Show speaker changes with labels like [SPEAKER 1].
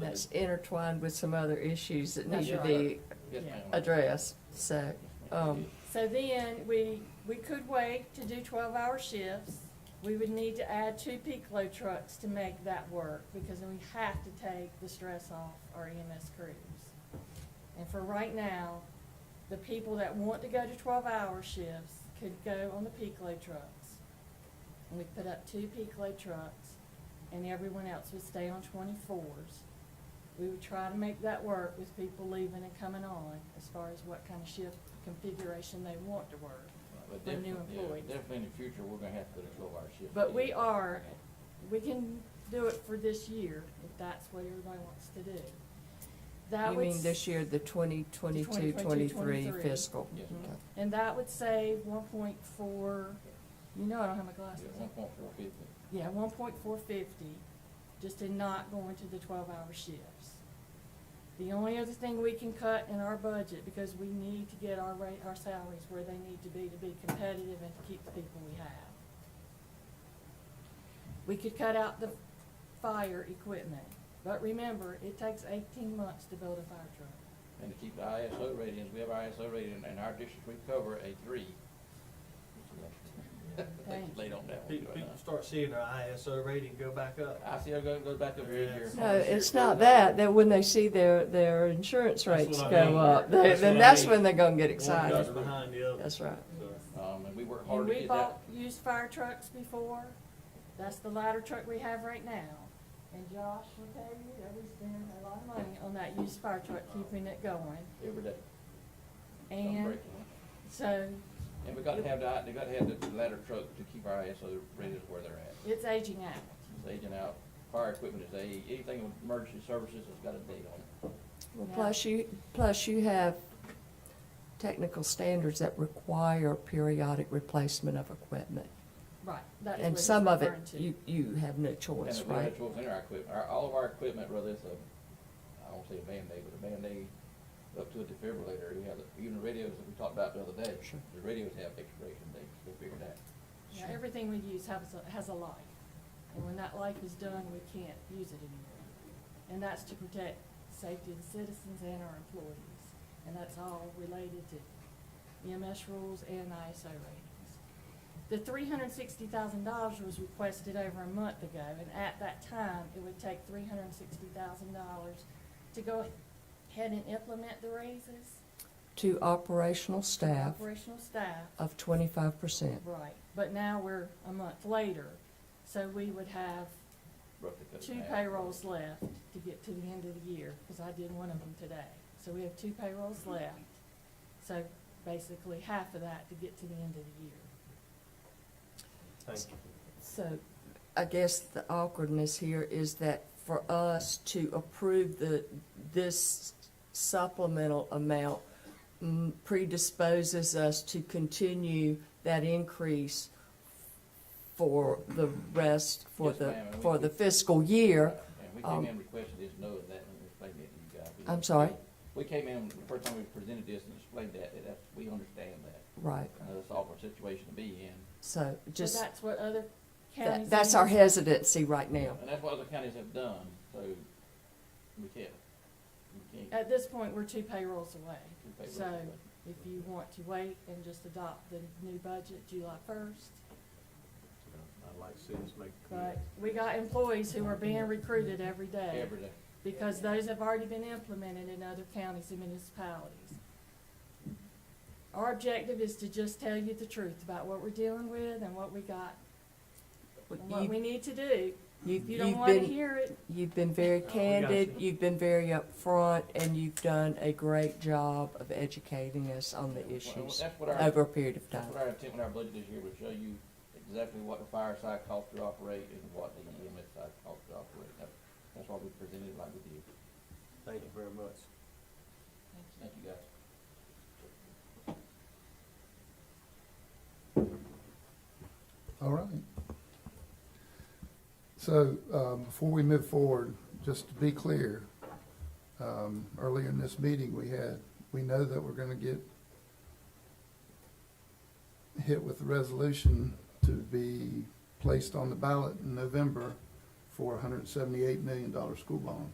[SPEAKER 1] that's intertwined with some other issues that need to
[SPEAKER 2] That's
[SPEAKER 1] be
[SPEAKER 2] right.
[SPEAKER 3] Yes, ma'am.
[SPEAKER 1] addressed, so, um,
[SPEAKER 2] So then, we, we could wait to do twelve-hour shifts. We would need to add two peak load trucks to make that work, because we have to take the stress off our EMS crews. And for right now, the people that want to go to twelve-hour shifts could go on the peak load trucks. And we put up two peak load trucks, and everyone else would stay on twenty-fours. We would try to make that work with people leaving and coming on, as far as what kind of shift configuration they want to work.
[SPEAKER 3] But
[SPEAKER 2] for new
[SPEAKER 3] definitely- yeah,
[SPEAKER 2] employees.
[SPEAKER 3] Definitely in the future, we're gonna have to put a twelve-hour shift.
[SPEAKER 2] But
[SPEAKER 3] in.
[SPEAKER 2] we are, we can do it for this year, if that's what everybody wants to do. That
[SPEAKER 1] you
[SPEAKER 2] would
[SPEAKER 1] mean
[SPEAKER 2] s-
[SPEAKER 1] this year, the 2022 23
[SPEAKER 2] 2022-23.
[SPEAKER 1] fiscal?
[SPEAKER 3] Yes, ma'am.
[SPEAKER 1] Okay.
[SPEAKER 2] And that would save one point four, you know I don't have my glasses
[SPEAKER 3] Yeah,
[SPEAKER 2] on.
[SPEAKER 3] one point four fifty.
[SPEAKER 2] Yeah, one point four fifty, just in not going to the twelve-hour shifts. The only other thing we can cut in our budget, because we need to get our rate, our salaries where they need to be to be competitive and to keep the people we have. We could cut out the fire equipment, but remember, it takes eighteen months to build a fire truck.
[SPEAKER 3] And to keep the ISO ratings, we have our ISO rating, and our district, we cover a three.
[SPEAKER 2] Thank
[SPEAKER 3] Late on that one.
[SPEAKER 4] People,
[SPEAKER 3] right
[SPEAKER 4] people
[SPEAKER 3] now.
[SPEAKER 4] start seeing their ISO rating go back up.
[SPEAKER 3] I see it goes, goes back up every year.
[SPEAKER 1] No, it's not that, that when they see their, their insurance
[SPEAKER 4] That's
[SPEAKER 1] rates
[SPEAKER 4] what I
[SPEAKER 1] go
[SPEAKER 4] mean.
[SPEAKER 1] up, they-
[SPEAKER 4] That's
[SPEAKER 1] then
[SPEAKER 4] what I
[SPEAKER 1] that's
[SPEAKER 4] mean.
[SPEAKER 1] when they're gonna get
[SPEAKER 4] One goes
[SPEAKER 1] excited.
[SPEAKER 4] behind the other.
[SPEAKER 1] That's right.
[SPEAKER 4] So,
[SPEAKER 3] Um, and we work
[SPEAKER 2] And
[SPEAKER 3] hard to
[SPEAKER 2] we
[SPEAKER 3] get
[SPEAKER 2] bought
[SPEAKER 3] that.
[SPEAKER 2] used fire trucks before. That's the ladder truck we have right now. And Josh will tell you that we spent a lot of money on that used fire truck, keeping it going.
[SPEAKER 3] Every day. Don't
[SPEAKER 2] And
[SPEAKER 3] break it.
[SPEAKER 2] so
[SPEAKER 3] And we gotta have the, they gotta have the ladder truck to keep our ISO ratings where they're at.
[SPEAKER 2] it's aging out.
[SPEAKER 3] It's aging out, fire equipment is a, anything with emergency services has got a date on it.
[SPEAKER 1] Well,
[SPEAKER 2] Yeah.
[SPEAKER 1] plus you, plus you have technical standards that require periodic replacement of equipment.
[SPEAKER 2] Right. that's what
[SPEAKER 1] And
[SPEAKER 2] it's
[SPEAKER 1] some of it,
[SPEAKER 2] referring to.
[SPEAKER 1] you, you have no choice,
[SPEAKER 3] And the
[SPEAKER 1] Oh, right?
[SPEAKER 3] virtual cleaner equipment, our, all of our equipment, whether it's a, I don't say a Band-Aid, but a Band-Aid up to a defibrillator, we have, the- even the radios that we talked about the other day.
[SPEAKER 1] Sure.
[SPEAKER 3] The radios have expiration dates, we figured that.
[SPEAKER 2] Yeah, everything we use has, a- has a life. And when that life is done, we can't use it anymore. And that's to protect safety of the citizens and our employees. And that's all related to EMS rules and ISO ratings. The three hundred and sixty thousand dollars was requested over a month ago, and at that time, it would take three hundred and sixty thousand dollars to go ahead and implement the raises.
[SPEAKER 1] To operational
[SPEAKER 2] to
[SPEAKER 1] staff
[SPEAKER 2] Operational staff.
[SPEAKER 1] of twenty-five percent.
[SPEAKER 2] Right, but now we're a month later, so we would have
[SPEAKER 3] roughly cut it in
[SPEAKER 2] two
[SPEAKER 3] half.
[SPEAKER 2] payrolls left to get to the end of the year, because I did one of them today. So we have two payrolls left, so basically half of that to get to the end of the year.
[SPEAKER 4] Thank you.
[SPEAKER 1] So I guess the awkwardness here is that for us to approve the, this supplemental amount mm, predisposes us to continue that increase for the rest, for
[SPEAKER 3] Yes,
[SPEAKER 1] the,
[SPEAKER 3] ma'am, and we
[SPEAKER 1] for the
[SPEAKER 3] could-
[SPEAKER 1] fiscal year.
[SPEAKER 3] And we
[SPEAKER 1] um,
[SPEAKER 3] came in requested this, know that, and explained it to you guys. We
[SPEAKER 1] I'm sorry?
[SPEAKER 3] explained- We came in, the first time we presented this and explained that, that that's, we understand that.
[SPEAKER 1] Right,
[SPEAKER 3] And that's an awkward situation to be in.
[SPEAKER 1] so
[SPEAKER 2] So
[SPEAKER 1] just,
[SPEAKER 2] that's what other counties.
[SPEAKER 1] that- that's our
[SPEAKER 2] in-
[SPEAKER 1] hesitancy right now.
[SPEAKER 3] And that's what other counties have done, so we can't, we can't.
[SPEAKER 2] At this point, we're two payrolls away.
[SPEAKER 3] two payrolls
[SPEAKER 2] Uh, So
[SPEAKER 3] away.
[SPEAKER 2] if you want to wait and just adopt the new budget July first,
[SPEAKER 4] I'd like to see us make.
[SPEAKER 2] but we got employees who are being recruited every day.
[SPEAKER 3] Every day.
[SPEAKER 2] because those have already been implemented in other counties and municipalities. Our objective is to just tell you the truth about what we're dealing with and what we got, and what we
[SPEAKER 1] You-
[SPEAKER 2] need to do.
[SPEAKER 1] you-
[SPEAKER 2] If you don't
[SPEAKER 1] you've
[SPEAKER 2] wanna
[SPEAKER 1] been-
[SPEAKER 2] hear it,
[SPEAKER 1] You've been
[SPEAKER 3] Oh,
[SPEAKER 1] very
[SPEAKER 4] we got
[SPEAKER 1] candid,
[SPEAKER 4] you.
[SPEAKER 1] you've been very upfront, and you've done a great job of educating us on the
[SPEAKER 3] Well,
[SPEAKER 1] issues
[SPEAKER 3] That's what
[SPEAKER 1] over
[SPEAKER 3] our,
[SPEAKER 1] a period of
[SPEAKER 3] that's
[SPEAKER 1] time.
[SPEAKER 3] what our intent with our budget this year, would show you exactly what the fireside costs to operate and what the EMS side costs to operate. That- That's why we presented it like we did.
[SPEAKER 4] Thank you very much.
[SPEAKER 3] Thank you, guys.
[SPEAKER 5] All right. So, um, before we move forward, just to be clear, um, earlier in this meeting, we had, we know that we're gonna get hit with the resolution to be placed on the ballot in November for a hundred and seventy-eight million dollar school bond.